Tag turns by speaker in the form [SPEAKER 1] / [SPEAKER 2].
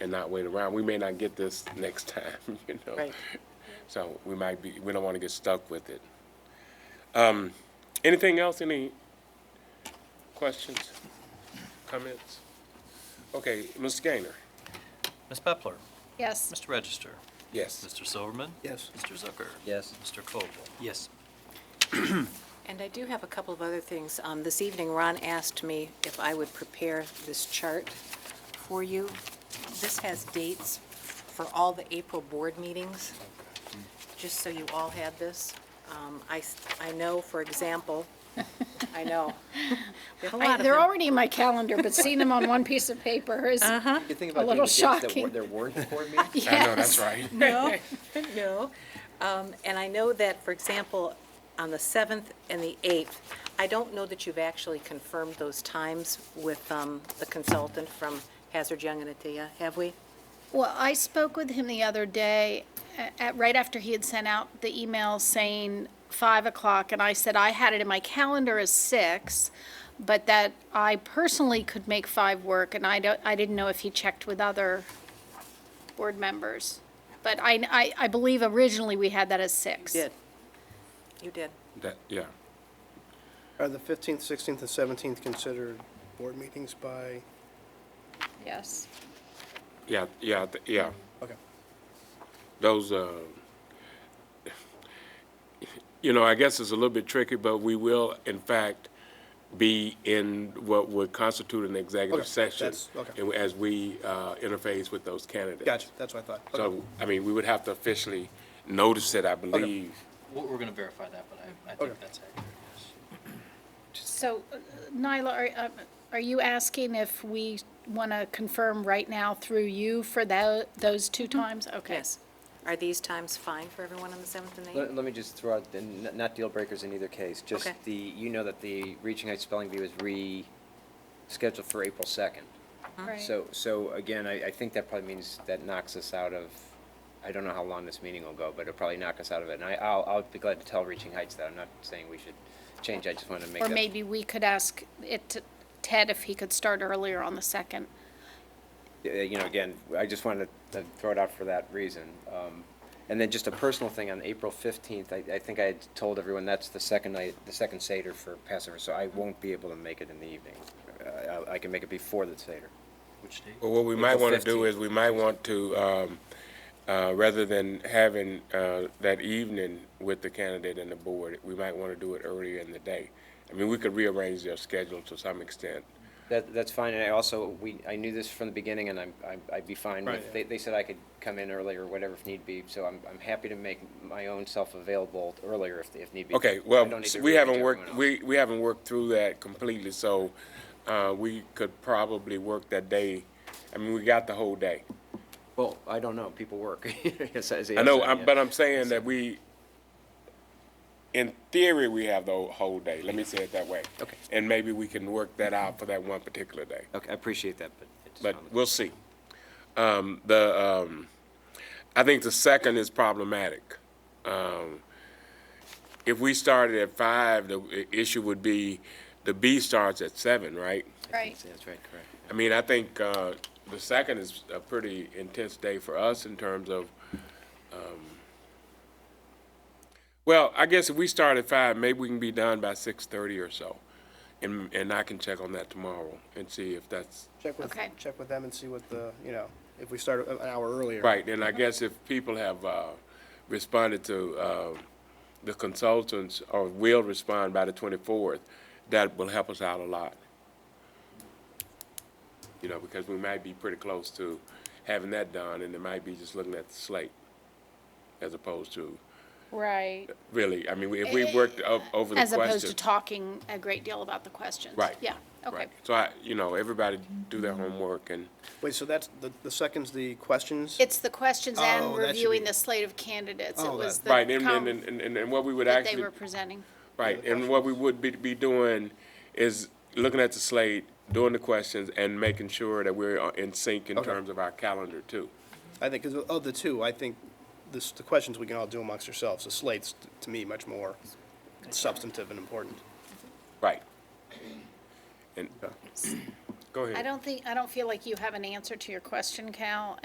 [SPEAKER 1] and not wait around. We may not get this next time, you know?
[SPEAKER 2] Right.
[SPEAKER 1] So we might be, we don't want to get stuck with it. Um, anything else? Any questions, comments? Okay, Mr. Gaynor?
[SPEAKER 3] Ms. Pepler.
[SPEAKER 4] Yes.
[SPEAKER 3] Mr. Register.
[SPEAKER 1] Yes.
[SPEAKER 3] Mr. Silverman.
[SPEAKER 5] Yes.
[SPEAKER 3] Mr. Zucker.
[SPEAKER 5] Yes.
[SPEAKER 3] Mr. Koval.
[SPEAKER 5] Yes.
[SPEAKER 2] And I do have a couple of other things. Um, This evening, Ron asked me if I would prepare this chart for you. This has dates for all the April board meetings, just so you all had this. Um, I s- I know, for example, I know. We have a lot
[SPEAKER 4] I-
[SPEAKER 2] of
[SPEAKER 4] They're
[SPEAKER 2] them.
[SPEAKER 4] already in my calendar, but seeing them on one piece of paper is,
[SPEAKER 5] You think
[SPEAKER 4] A
[SPEAKER 5] about doing
[SPEAKER 4] little
[SPEAKER 5] the dates that
[SPEAKER 4] shocking.
[SPEAKER 5] were, there weren't before me?
[SPEAKER 4] yes.
[SPEAKER 1] I know, that's right.
[SPEAKER 2] No, no. Um, And I know that, for example, on the 7th and the 8th, I don't know that you've actually confirmed those times with um, the consultant from Hazard Young and Atia, have we?
[SPEAKER 4] Well, I spoke with him the other day, a- at, right after he had sent out the email saying five o'clock, and I said I had it in my calendar as six, but that I personally could make five work, and I don't, I didn't know if he checked with other board members. But I, I, I believe originally we had that as six.
[SPEAKER 2] You did.
[SPEAKER 1] That, yeah.
[SPEAKER 6] Are the 15th, 16th, and 17th considered board meetings by,
[SPEAKER 4] Yes.
[SPEAKER 1] Yeah, yeah, th- yeah.
[SPEAKER 6] okay.
[SPEAKER 1] Those, uh, you know, I guess it's a little bit tricky, but we will, in fact, be in what would constitute an executive
[SPEAKER 6] Okay,
[SPEAKER 1] session
[SPEAKER 6] that's- okay.
[SPEAKER 1] and as we uh, interface with those candidates.
[SPEAKER 6] Gotcha, that's what I thought. Okay.
[SPEAKER 1] So, I mean, we would have to officially notice it, I believe.
[SPEAKER 3] We're, we're gonna verify that, but I, I think
[SPEAKER 6] Okay.
[SPEAKER 3] that's accurate, yes.
[SPEAKER 4] So uh, Nyla, are, uh, are you asking if we want to confirm right now through you for tho- those two times? Okay.
[SPEAKER 2] Yes. Are these times fine for everyone on the 7th and the 8th?
[SPEAKER 5] Let, let me just throw out, the n- not deal breakers in either case, just
[SPEAKER 2] Okay.
[SPEAKER 5] the, you know that the Reaching Heights Spelling Bee was re-scheduled for April 2nd.
[SPEAKER 4] Right.
[SPEAKER 5] So, so again, I, I think that probably means that knocks us out of, I don't know how long this meeting will go, but it'll probably knock us out of it. And I, I'll, I'll be glad to tell Reaching Heights that. I'm not saying we should change, I just wanted to make
[SPEAKER 4] Or
[SPEAKER 5] that.
[SPEAKER 4] maybe we could ask it, to Ted, if he could start earlier on the second.
[SPEAKER 5] Yeah, uh, you know, again, I just wanted to throw it out for that reason. Um, And then just a personal thing, on April 15th, I, I think I had told everyone that's the second night, the second Seder for Passover, so I won't be able to make it in the evening. Uh, I I can make it before the Seder.
[SPEAKER 3] Which date?
[SPEAKER 1] Well, what we might
[SPEAKER 5] April
[SPEAKER 1] want to do
[SPEAKER 5] 15th.
[SPEAKER 1] is, we might want to, um, uh, rather than having uh, that evening with the candidate and the board, we might want to do it earlier in the day. I mean, we could rearrange their schedule to some extent.
[SPEAKER 5] That, that's fine, and I also, we, I knew this from the beginning, and I'm, I'm- I'd be fine
[SPEAKER 6] Right,
[SPEAKER 5] with,
[SPEAKER 6] yeah.
[SPEAKER 5] they, they said I could come in earlier, whatever if need be, so I'm, I'm happy to make my own self available earlier if, if need be.
[SPEAKER 1] Okay,
[SPEAKER 5] I
[SPEAKER 1] well,
[SPEAKER 5] don't need to
[SPEAKER 1] we
[SPEAKER 5] rearrange
[SPEAKER 1] haven't
[SPEAKER 5] everyone
[SPEAKER 1] worked,
[SPEAKER 5] else.
[SPEAKER 1] we, we haven't worked through that completely, so, uh, we could probably work that day. I mean, we got the whole day.
[SPEAKER 5] Well, I don't know, people work. Yes, as
[SPEAKER 1] I know,
[SPEAKER 5] said,
[SPEAKER 1] I'm,
[SPEAKER 5] yeah.
[SPEAKER 1] but I'm saying that we, in theory, we have the whole day, let me say it that way.
[SPEAKER 5] Okay.
[SPEAKER 1] And maybe we can work that out for that one particular day.
[SPEAKER 5] Okay, I appreciate that, but. it just sounded-
[SPEAKER 1] but we'll see. Um, the um, I think the second is problematic. Um, if we started at five, the i- issue would be the B starts at seven, right?
[SPEAKER 4] Right.
[SPEAKER 5] That's right, correct.
[SPEAKER 1] I mean, I think uh, the second is a pretty intense day for us in terms of. Um, well, I guess if we start at five, maybe we can be done by six thirty or so, and and I can check on that tomorrow and see if that's
[SPEAKER 6] Check with,
[SPEAKER 4] Okay.
[SPEAKER 6] check with them and see what the, you know, if we start an hour earlier.
[SPEAKER 1] Right, and I guess if people have uh, responded to uh, the consultants or will respond by the 24th, that will help us out a lot. You know, because we might be pretty close to having that done, and it might be just looking at the slate as opposed to,
[SPEAKER 4] Right.
[SPEAKER 1] really, I mean, if we worked o- over the
[SPEAKER 4] As
[SPEAKER 1] question.
[SPEAKER 4] opposed to talking a great deal about the questions.
[SPEAKER 1] Right.
[SPEAKER 4] Yeah, okay.
[SPEAKER 1] Right. So I, you know, everybody do their homework and,
[SPEAKER 6] Wait, so that's, the, the second's the questions?
[SPEAKER 4] It's the questions
[SPEAKER 6] Oh,
[SPEAKER 4] and
[SPEAKER 6] that should
[SPEAKER 4] reviewing
[SPEAKER 6] be-
[SPEAKER 4] the slate of candidates. It
[SPEAKER 6] Oh,
[SPEAKER 4] was
[SPEAKER 6] that-
[SPEAKER 4] the
[SPEAKER 1] right, and,
[SPEAKER 4] com-
[SPEAKER 1] and, and- and, and what we would
[SPEAKER 4] that
[SPEAKER 1] actually.
[SPEAKER 4] they were presenting.
[SPEAKER 1] Right, and what we would be, be doing is looking at the slate, doing the questions, and making sure that we're uh, in sync in
[SPEAKER 6] Okay.
[SPEAKER 1] terms of our calendar too.
[SPEAKER 6] I think, because of the two, I think this, the questions we can all do amongst ourselves. The slate's, t- to me, much more substantive and important.
[SPEAKER 1] Right. And, Go ahead.
[SPEAKER 4] I don't think, I don't feel like you have an answer to your question, Cal,